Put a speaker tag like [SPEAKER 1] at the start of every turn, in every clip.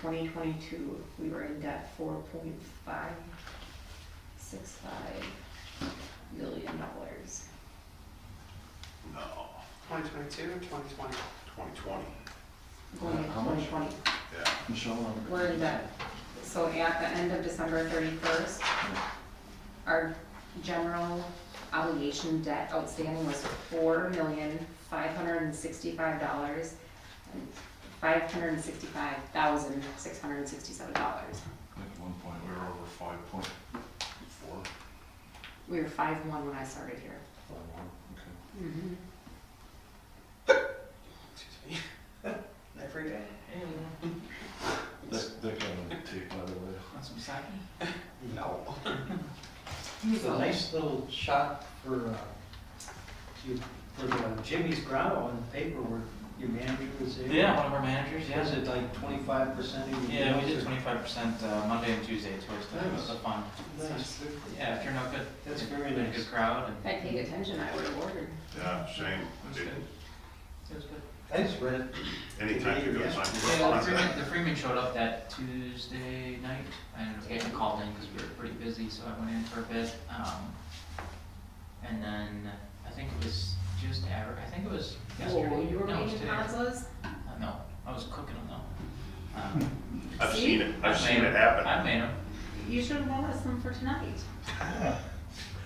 [SPEAKER 1] twenty twenty-two, we were in debt four point five six five million dollars.
[SPEAKER 2] No,
[SPEAKER 3] 2022 or 2020?
[SPEAKER 2] 2020,
[SPEAKER 1] Going into
[SPEAKER 4] Uh, How
[SPEAKER 1] twenty
[SPEAKER 4] much?
[SPEAKER 1] twenty,
[SPEAKER 2] yeah.
[SPEAKER 4] Michelle, I'm-
[SPEAKER 1] we're in debt. So at the end of December thirty-first, our general obligation debt outstanding was four million five hundred and sixty-five dollars and five hundred and sixty-five thousand six hundred and sixty-seven dollars.
[SPEAKER 4] at one point, we were over five point four,
[SPEAKER 1] We were five one when I started here.
[SPEAKER 4] five one, okay.
[SPEAKER 3] Excuse me. Every day.
[SPEAKER 4] That, that got on tape, by the way.
[SPEAKER 5] Want some sake?
[SPEAKER 3] No.
[SPEAKER 6] Here's a nice little shot for, uh, you, for the Jimmy's Grotto on the paper where your manager was there.
[SPEAKER 5] Yeah, one of our managers, yeah.
[SPEAKER 6] Is it like twenty-five percent of your?
[SPEAKER 5] Yeah, we did
[SPEAKER 6] bills or-
[SPEAKER 5] twenty-five percent uh, Monday and Tuesday towards the,
[SPEAKER 6] Nice.
[SPEAKER 5] the fund.
[SPEAKER 6] Nice.
[SPEAKER 5] Yeah, if you're no good.
[SPEAKER 6] That's very
[SPEAKER 5] been a
[SPEAKER 6] nice.
[SPEAKER 5] Good crowd
[SPEAKER 1] If
[SPEAKER 5] and.
[SPEAKER 1] I paid attention, I would have ordered.
[SPEAKER 2] Yeah, shame, I
[SPEAKER 5] That's
[SPEAKER 2] didn't,
[SPEAKER 5] It was good.
[SPEAKER 6] I just read it.
[SPEAKER 2] anytime you go
[SPEAKER 6] Yeah.
[SPEAKER 2] sign for a
[SPEAKER 5] Yeah, the Freeman,
[SPEAKER 2] contract.
[SPEAKER 5] the Freeman showed up that Tuesday night and we had called in because we were pretty busy, so I went in for a bit. Um, and then I think it was just aver, I think it was yesterday.
[SPEAKER 1] Whoa, you were
[SPEAKER 5] No, it was
[SPEAKER 1] making
[SPEAKER 5] today.
[SPEAKER 1] consoles?
[SPEAKER 5] Uh, No, I was cooking them though. Um,
[SPEAKER 2] I've
[SPEAKER 1] See?
[SPEAKER 2] seen it, I've
[SPEAKER 5] made
[SPEAKER 2] seen it
[SPEAKER 5] 'em.
[SPEAKER 2] happen.
[SPEAKER 5] I made them.
[SPEAKER 1] You should have bought us some for tonight.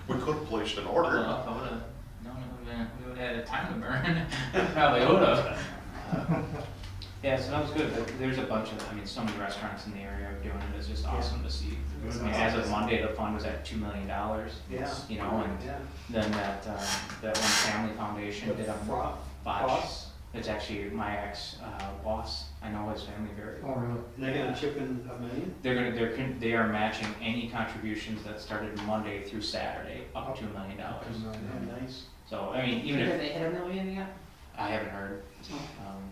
[SPEAKER 2] We could have placed an
[SPEAKER 5] Well,
[SPEAKER 2] order.
[SPEAKER 5] if I would've known it would've been, we would've had a time to burn, probably would've. Yeah, so that was good, There- there's a bunch of, I mean, so many restaurants in the area are doing it, it's just awesome to see.
[SPEAKER 6] It was
[SPEAKER 5] I mean, as of
[SPEAKER 6] awesome.
[SPEAKER 5] Monday, the fund was at two million dollars,
[SPEAKER 6] Yeah.
[SPEAKER 5] you know, and
[SPEAKER 6] Yeah.
[SPEAKER 5] then that, um, that one family foundation did
[SPEAKER 6] The
[SPEAKER 5] a
[SPEAKER 6] fro-
[SPEAKER 5] botch.
[SPEAKER 6] frost.
[SPEAKER 5] It's actually my ex, uh, boss, I know his family very well.
[SPEAKER 6] Oh, really? And they're gonna chip in a million?
[SPEAKER 5] They're gonna, they're, con- they are matching any contributions that started Monday through Saturday,
[SPEAKER 6] Oh.
[SPEAKER 5] up to a million dollars.
[SPEAKER 6] Yeah, nice.
[SPEAKER 5] So, I mean, even if
[SPEAKER 1] Have they hit a million yet?
[SPEAKER 5] I haven't heard.
[SPEAKER 1] Oh.
[SPEAKER 5] Um,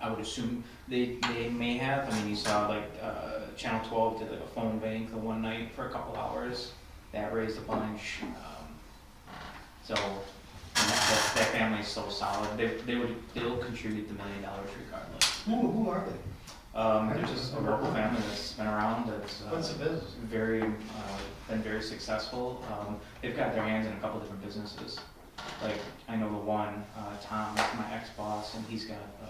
[SPEAKER 5] I would assume they, they may have, I mean, you saw like, uh, Channel twelve did like a phone bank the one night for a couple hours, that raised a bunch, um, so, and that, that, that family's so solid, they, they would, they'll contribute the million dollars regardless.
[SPEAKER 6] Who, who are they?
[SPEAKER 5] Um, there's just a local family that's been around that's, uh,
[SPEAKER 6] What's the business?
[SPEAKER 5] very, uh, been very successful. Um, they've got their hands in a couple different businesses. Like, I know the one, uh, Tom, my ex-boss, and he's got, uh,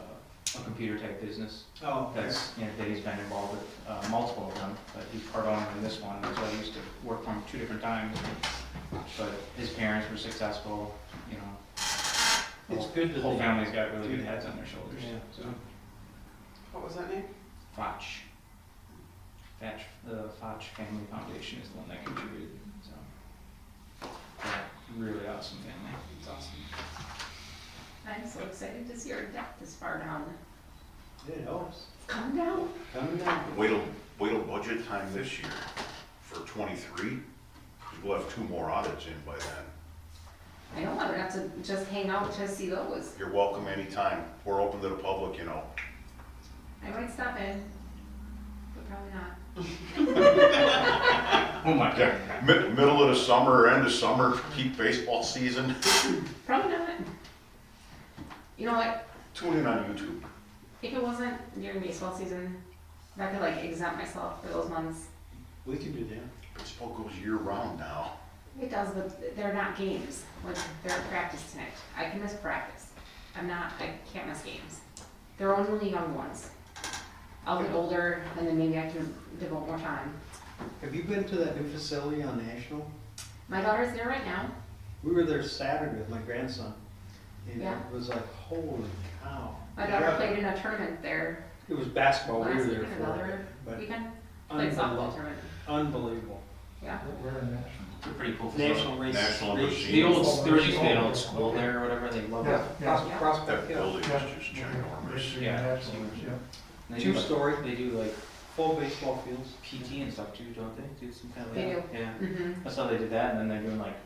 [SPEAKER 5] a computer type business
[SPEAKER 6] Oh, okay.
[SPEAKER 5] that's, you know, that he's been involved with, uh, multiple of them, but he's part owner in this one, so he used to work from two different times. But his parents were successful, you know.
[SPEAKER 6] It's good that
[SPEAKER 5] Whole
[SPEAKER 6] they-
[SPEAKER 5] family's got really good heads on their shoulders,
[SPEAKER 6] Yeah.
[SPEAKER 5] so.
[SPEAKER 3] What was that name?
[SPEAKER 5] Foch. Foch, the Foch Family Foundation is the one that contributed, so. Yeah, really awesome family.
[SPEAKER 3] It's awesome.
[SPEAKER 1] I'm so excited to see our debt this far down.
[SPEAKER 6] It helps.
[SPEAKER 1] It's coming down.
[SPEAKER 6] Coming down.
[SPEAKER 2] Wait till, wait till budget time this year for twenty-three, because we'll have two more audits in by then.
[SPEAKER 1] I know, I would have to just hang out to see those.
[SPEAKER 2] You're welcome anytime, we're open to the public, you know.
[SPEAKER 1] I might stop in, but probably not.
[SPEAKER 5] Oh my
[SPEAKER 2] Yeah, mid, middle of the summer, end of summer, peak baseball season,
[SPEAKER 1] Probably not. You know what?
[SPEAKER 2] tune in on YouTube.
[SPEAKER 1] If it wasn't during baseball season, if I could like exempt myself for those months.
[SPEAKER 6] We can do that.
[SPEAKER 2] Baseball goes year round now.
[SPEAKER 1] It does, but they're not games. Like, they're practice tonight. I can miss practice. I'm not, I can't miss games. They're only young ones. I'll get older and then maybe I can devote more time.
[SPEAKER 6] Have you been to that new facility on National?
[SPEAKER 1] My daughter's there right now.
[SPEAKER 6] We were there Saturday with my grandson, and
[SPEAKER 1] Yeah.
[SPEAKER 6] it was like, holy cow.
[SPEAKER 1] My daughter played in a tournament there
[SPEAKER 6] It was basketball, Oh, we
[SPEAKER 1] last
[SPEAKER 6] were there
[SPEAKER 1] weekend,
[SPEAKER 6] for it,
[SPEAKER 1] another
[SPEAKER 6] but
[SPEAKER 1] weekend. Played softball tournament,
[SPEAKER 6] unbelievable, unbelievable.
[SPEAKER 1] yeah.
[SPEAKER 4] We're in that.
[SPEAKER 5] It's a pretty cool facility.
[SPEAKER 6] National race.
[SPEAKER 2] National
[SPEAKER 6] race-
[SPEAKER 2] machine.
[SPEAKER 5] The old, there used to be an old school there or whatever, they love it.
[SPEAKER 1] Yeah.
[SPEAKER 2] That building is just ginormous.
[SPEAKER 5] Yeah. They do like-
[SPEAKER 6] Two-story.
[SPEAKER 5] They do like
[SPEAKER 6] Full baseball fields.
[SPEAKER 5] PT and stuff too, don't they? Do some kind of.
[SPEAKER 1] They
[SPEAKER 5] Yeah.
[SPEAKER 1] Mm-hmm.
[SPEAKER 5] That's how they did that, and then they're doing like